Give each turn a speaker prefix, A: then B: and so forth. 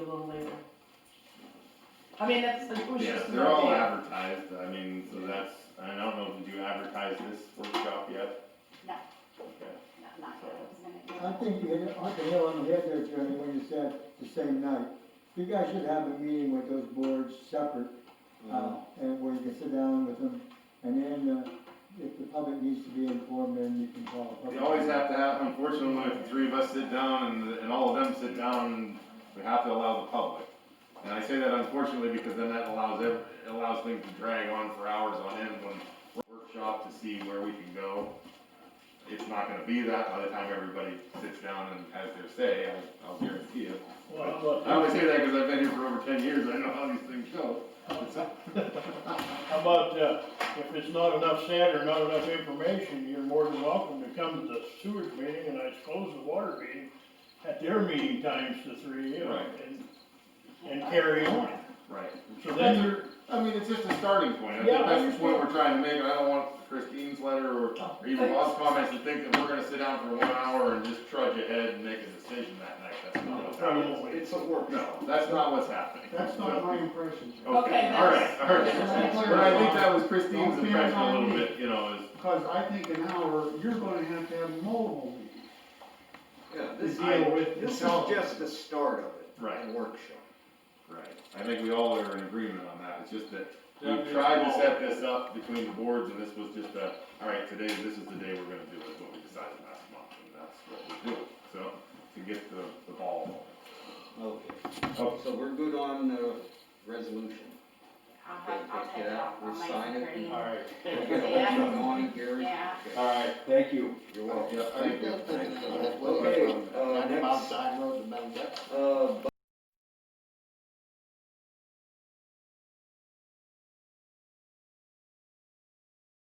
A: I mean, that's, it was
B: Yeah,
A: just an
B: they're all
A: update.
B: advertised, I mean, so that's, I don't know, did you advertise this workshop yet?
C: No.
B: Okay.
C: not, not that I was gonna do.
D: I think you hit, it- I can hit on the head there, Jeremy, when you said the same night. You guys should have a meeting with those boards separate, uh, and where you can sit down with them, and then, uh, if the public needs to be informed, then you can call. a
B: We
D: public
B: always have to have, unfortunately, if the three of us sit down and, and all of them sit down, we have to allow the public. And I say that unfortunately because then that allows, ev- it allows things to drag on for hours on end when workshop to see where we can go. It's not gonna be that by the time everybody sits down and has their say, I'll, I'll guarantee it.
E: Well, look,
B: I always say that because I've been here for over ten years, I know how these things go.
E: how about, uh, if it's not enough said or not enough information, you're more than welcome to come to the sewage meeting, and I suppose the water meeting, at their meeting times, the three, you know,
B: Right.
E: and, and carry on.
B: Right.
E: So then you're,
B: I mean, it's just a starting point, I
E: Yeah,
B: think
E: I
B: that's the point
E: understand.
B: we're trying to make, and I don't want Christine's letter or or even Rob's comments to think that we're gonna sit down for one hour and just trudge ahead and make a decision that night, that's not what's
E: Probably
B: happening.
E: won't wait.
F: It's a work.
B: No, that's not what's happening.
F: That's not my impression.
A: Okay,
B: Okay, alright, alright,
F: that's-
B: but I think that was Christine's
F: Don't be
B: impression a
F: on
B: little
F: me.
B: bit, you know, is,
F: Cause I think an hour, you're gonna have to have multiple meetings.
G: Yeah,
F: to
G: this,
F: deal with the
G: this is
F: solid.
G: just the start of it.
B: Right.
G: A workshop.
B: right, I think we all are in agreement on that, it's just that
E: Yeah,
B: we
E: it's
B: tried to
E: all-
B: set this up between the boards, and this was just a, alright, today, this is the day we're gonna do it, what we decided last month, and that's what we're doing, so, to get the, the ball rolling.
G: Okay, so we're good on the resolution.
C: I'll have, I'll
G: Okay,
C: take it
G: yeah,
C: off,
G: we'll
C: I'll make
G: sign
C: it
G: it.
C: pretty.
H: All right,
G: We're gonna put something on it, Gary.
C: Yeah.
G: Okay,
H: all right, thank you.
G: You're welcome.
B: Yeah, I think
G: Okay, uh, next,
F: Side road to Mount Deb.
G: uh,